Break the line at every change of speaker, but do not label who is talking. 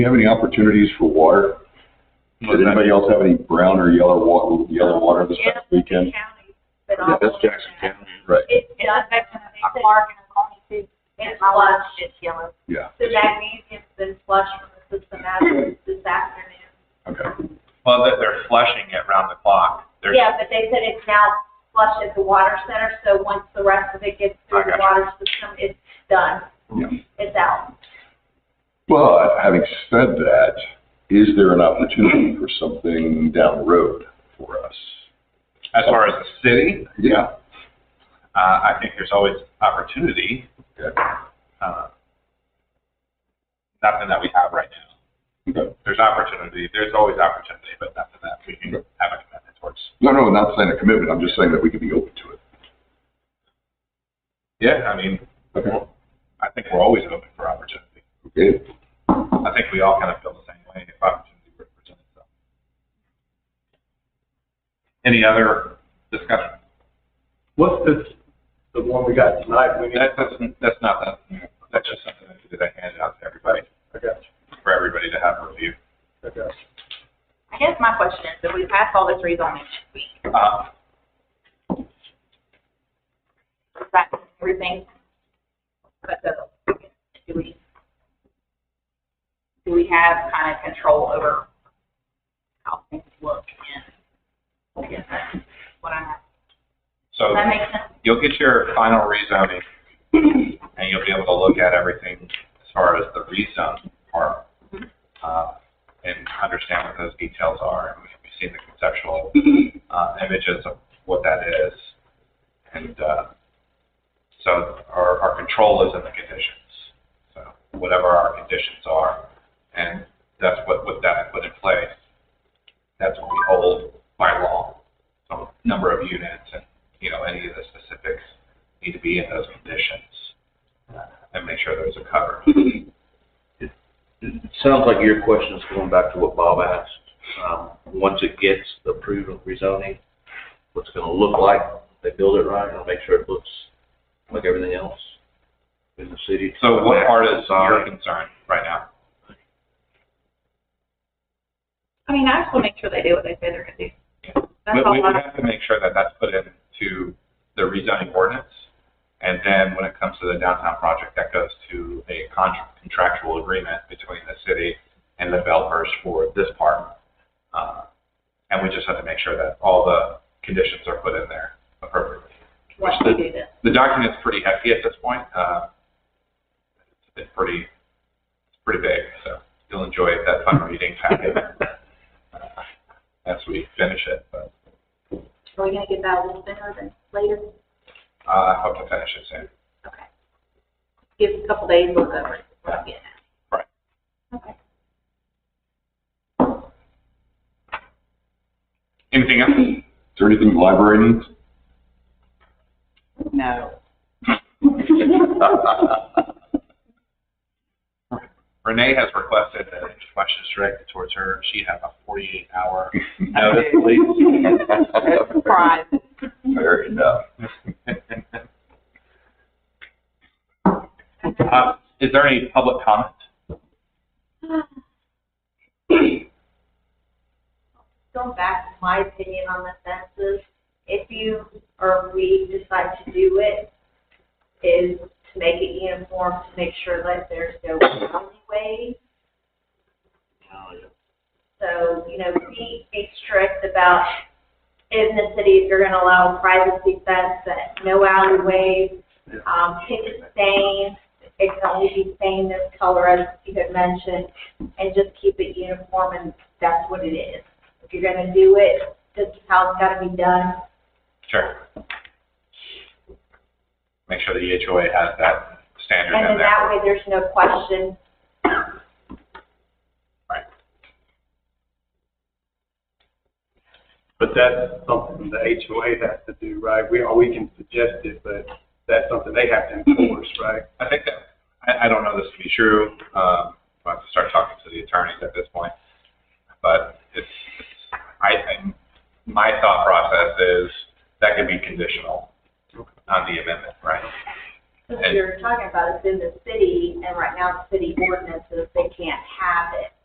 you have any opportunities for water? Does anybody else have any brown or yellow wa, yellow water this past weekend?
Yeah, that's Jackson County.
Right,
It, it affects our park and our county too.
It's flush, it's yellow.
yeah,
The magnesium's been flushed from the system as of this afternoon.
okay.
Well, they're, they're flushing it round the clock. There's,
Yeah, but they said it's now flushed at the water center, so once the rest of it gets
I
through the
got
water system, it's done.
Yeah.
It's out.
But having said that, is there an opportunity for something down the road for us?
as far as the city,
Yeah.
uh, I think there's always opportunity,
Okay.
uh, nothing that we have right now.
Okay.
There's opportunity, there's always opportunity, but nothing that we can have a commitment towards.
No, no, not saying a commitment, I'm just saying that we could be open to it.
Yeah, I mean,
Okay.
I think we're always open for opportunity.
Okay,
I think we all kind of feel the same way if opportunity were to present itself. Any other discussion?
What's this, the one we got tonight, we need,
That's, that's- that's not, that- that's just something that I handed out to everybody,
I got you,
for everybody to have review.
I got you.
I guess my question is, if we pass all this rezoning this week,
Uh,
is that everything? But the, do we, do we have kind of control over how things look and, I guess that's what I'm, asking.
So
does that make sense?
you'll get your final rezoning, and you'll be able to look at everything as far as the rezone part, uh, and understand what those details are. And we've seen the conceptual uh, images of what that is, and uh, so our, our control is in the conditions. So whatever our conditions are, and that's what what that put in place. That's what we hold by law. So number of units and you know, any of the specifics need to be in those conditions uh, and make sure those are covered.
It sounds like your question is going back to what Bob asked. Um, once it gets approved of rezoning, what's it gonna look like? They build it right, and make sure it looks like everything else in the city.
So what part is uh, your
Design.
concern right now?
I mean, I just want to make sure they do what they say they're gonna do. That's
We,
all
we
I-
would have to make sure that that's put into the rezoning ordinance. And then when it comes to the downtown project, that goes to a con- contractual agreement between the city and the developers for this part. Uh, And we just have to make sure that all the conditions are put in there appropriately.
once we do this.
the document's pretty hefty at this point. Uh, it's pretty, it's pretty big, so you'll enjoy that fun reading packet uh, as we finish it. But
Are we gonna get that a little sooner than later?
uh, I hope to finish it soon.
Okay. Give us a couple days, look over it,
what I'm
getting at.
Right.
Okay.
Anything else?
is there anything the library needs?
No.
Renee has requested that any questions directed towards her. She has a 48-hour
No, that's please.
Surprise.
Fair enough.
Uh, Is there any public comment?
Going back to my opinion on the fences, if you or we decide to do it, is to make it uniform, to make sure that there's no alleyway. So, you know, be, be strict about in the city, if you're gonna allow a privacy fence, that no alleyways, um, pick a stain, it can only be stained this color as you had mentioned, and just keep it uniform and that's what it is. If you're gonna do it, this is how it's gotta be done.
Sure. Make sure the HOA has that standard
And
in
then
there.
that way, there's no question.
But that's something the HOA has to do, right? We, or we can suggest it, but that's something they have to enforce, right?
I think that, I, I don't know this to be true, um, I'll have to start talking to the attorneys at this point. But it's, it's- I, think my thought process is that could be conditional on the amendment, right?
Since you're talking about it's in the city, and right now the city ordinances